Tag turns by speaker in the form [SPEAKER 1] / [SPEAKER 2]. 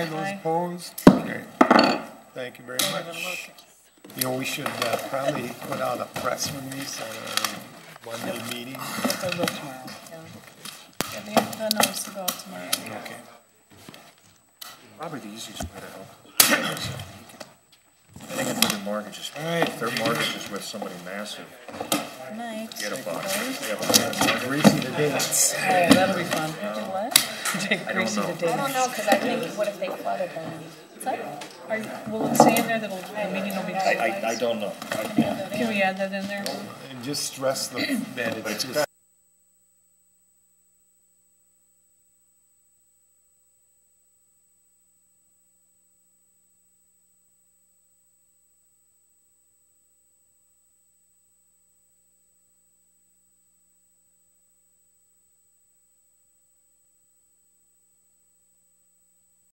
[SPEAKER 1] Those opposed? Okay. Thank you very much. You know, we should uh, probably put out a press release on our one-day meeting.
[SPEAKER 2] They'll go tomorrow. Yeah, they, the notice will go out tomorrow.
[SPEAKER 1] Okay.
[SPEAKER 3] Probably the easiest way to help. I think if their mortgage is,
[SPEAKER 1] All right.
[SPEAKER 3] if their mortgage is with somebody massive,
[SPEAKER 2] Good Night.
[SPEAKER 3] get a
[SPEAKER 2] Did
[SPEAKER 3] box. They have a box.
[SPEAKER 1] Greasy the dates.
[SPEAKER 2] Oh, that'll be fun. Do what?
[SPEAKER 3] I don't know.
[SPEAKER 4] I don't know, because I think, what if they flooded them?
[SPEAKER 2] Are, you- will it say in there that it'll- the meeting will be
[SPEAKER 3] I, I, I
[SPEAKER 2] televised?
[SPEAKER 3] don't know.
[SPEAKER 2] Can we add that in there?
[SPEAKER 1] And just stress the, that it's just